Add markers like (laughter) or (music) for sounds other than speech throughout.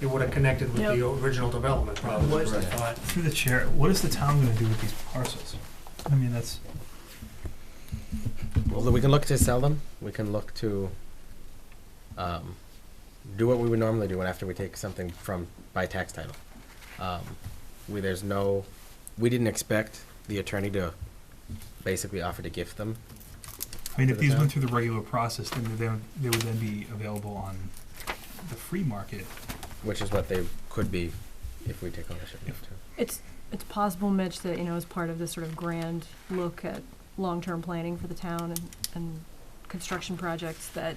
it would have connected with the original development probably, What is I that? thought. Through the chair, what is the town gonna do with these parcels? I mean, that's, Well, we can look to sell them. We can look to um, do what we would normally do when after we take something from by tax title. Um, we there's no, we didn't expect the attorney to basically offer to gift them. I mean, To if the these town. went through the regular process, then they, would- they would then be available on the free market. which is what they could be if we take ownership of it, too. It's, it's possible, Mitch, that, you know, as part of this sort of grand look at long-term planning for the town and, and construction projects, that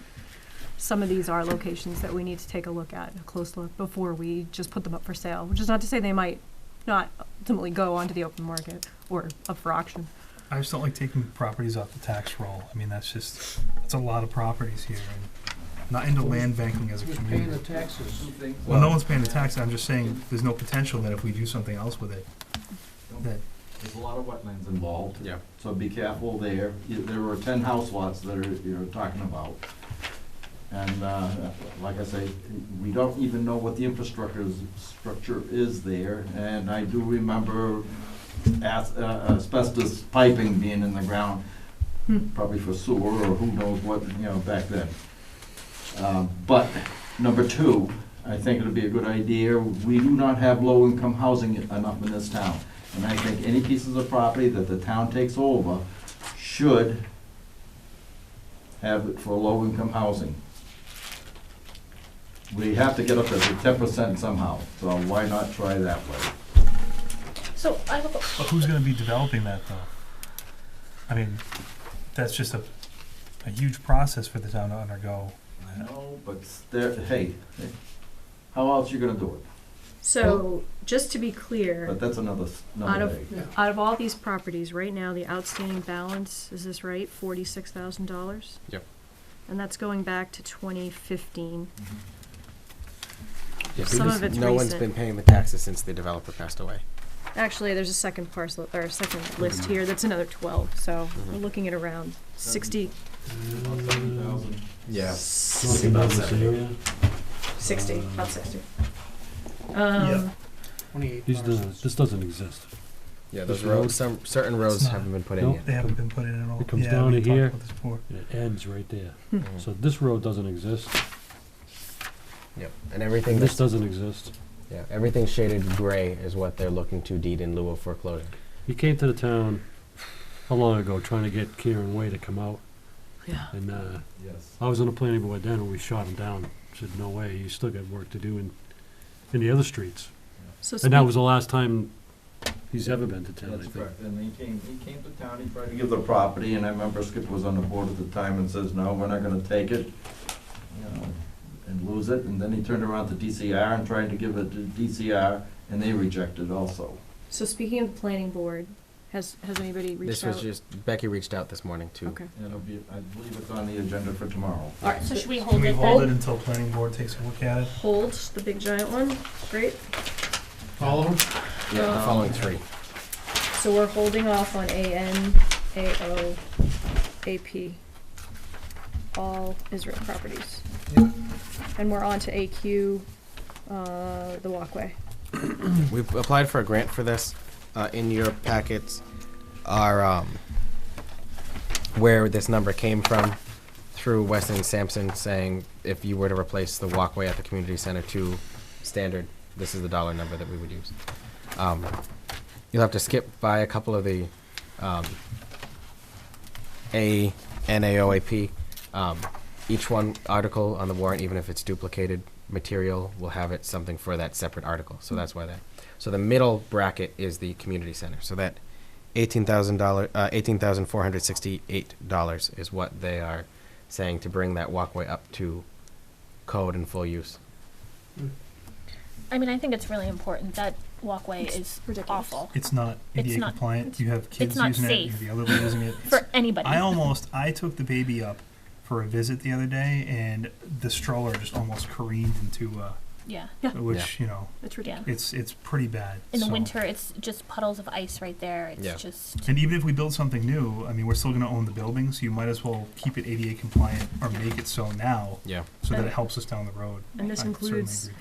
some of these are locations that we need to take a look at, a close look, before we just put them up for sale, which is not to say they might not ultimately go onto the open market or up for auction. I just don't like taking properties off the tax roll. I mean, that's just, that's a lot of properties here and not into land banking as a Who's paying the community. taxes? Well, no one's paying the tax, I'm just saying, there's no potential that if we do something else with it, that There's a lot of wetlands involved, Yeah. so be careful there. You- There were ten house lots that are, you're talking about. And, uh, like I say, we don't even know what the infrastructure is, structure is there. And I do remember as, uh, asbestos piping being in the ground, Hmm. probably for sewer or who knows what, you know, back then. Um, but, number two, I think it'd be a good idea, we do not have low-income housing enough in this town. And I think any pieces of property that the town takes over should have it for low-income housing. We have to get up to ten percent somehow, so why not try that way? So I have a, But who's gonna be developing that though? I mean, that's just a, a huge process for the town to undergo. I know, but there, hey, how else you gonna do it? So, just to be clear. But that's another, s- Out another of- day. Yeah. Out of all these properties, right now, the outstanding balance, is this right, forty-six thousand dollars? Yep. And that's going back to twenty fifteen. Yeah, Some because of it's No one's recent. been paying the taxes since the developer passed away. Actually, there's a second parcel, or a second list here, that's another twelve, so we're Mhm. looking at around sixty, About 70,000. Yeah. sixty, about sixty. Um, Yep. Twenty-eight These doesn't, parcels. this doesn't exist. Yeah, those This road- roads, some, certain roads not- haven't been put in Nope. yet. They haven't been put in at all. It comes Yeah, down to we talked here. about this before. It ends right there. Mhm. Mm-hmm. So this road doesn't exist, Yep, and everything and this that's, doesn't exist. yeah, everything shaded gray is what they're looking to deed in lieu of foreclosure. He came to the town, how long ago, trying to get Karen Way to come out, yeah, and, uh, Yes. I was on the planning board then, and we shot him down. Said, no way, you still got work to do in, in the other streets. so And that speak, was the last time he's ever been to town, I That's think. correct, and he came, he came to town, he tried to give the property, and I remember Skip was on the board at the time and says, no, we're not gonna take it, you know, and lose it, and then he turned around to DCR and tried to give it to DCR, and they rejected also. so speaking of the planning board, has, has anybody reached This was out? just, Becky reached out this morning to Okay, And It'll be, I believe it's on the agenda for tomorrow. all right, so should we Can hold we it hold it then? until planning board takes a look at it? hold the big giant one, great, All of them? Yeah, the Um, following three. so we're holding off on AN, AO, AP, all Israel properties. And we're on to AQ, uh, the walkway. We've applied for a grant for this. Uh, in your packets are um, where this number came from through Weston Sampson saying if you were to replace the walkway at the community center to standard, this is the dollar number that we would use. Um, you'll have to skip by a couple of the um, A, NAOAP. Um, each one article on the warrant, even if it's duplicated material, will have it something for that separate article. So that's why that. So the middle bracket is the community center. So that eighteen thousand dollar, uh, eighteen thousand four hundred sixty-eight dollars is what they are saying to bring that walkway up to code and full use. I mean, I think it's really important, that walkway is ridiculous. awful, It's not It's ADA not- compliant, you have kids not using it, you have safe. the (laughs) elderly using it. It's- for anybody. I almost, I took the baby up for a visit the other day and the stroller just almost careened into, uh, Yeah, which, you know, It's yeah. ridiculous. it's, it's pretty bad. In the so- winter, it's just puddles of ice right there, Yeah. it's just, And even if we build something new, I mean, we're still gonna own the building, so you might as well keep it ADA compliant or make it so now, Yeah. so that And- it helps us down the road. And this I certainly includes agree.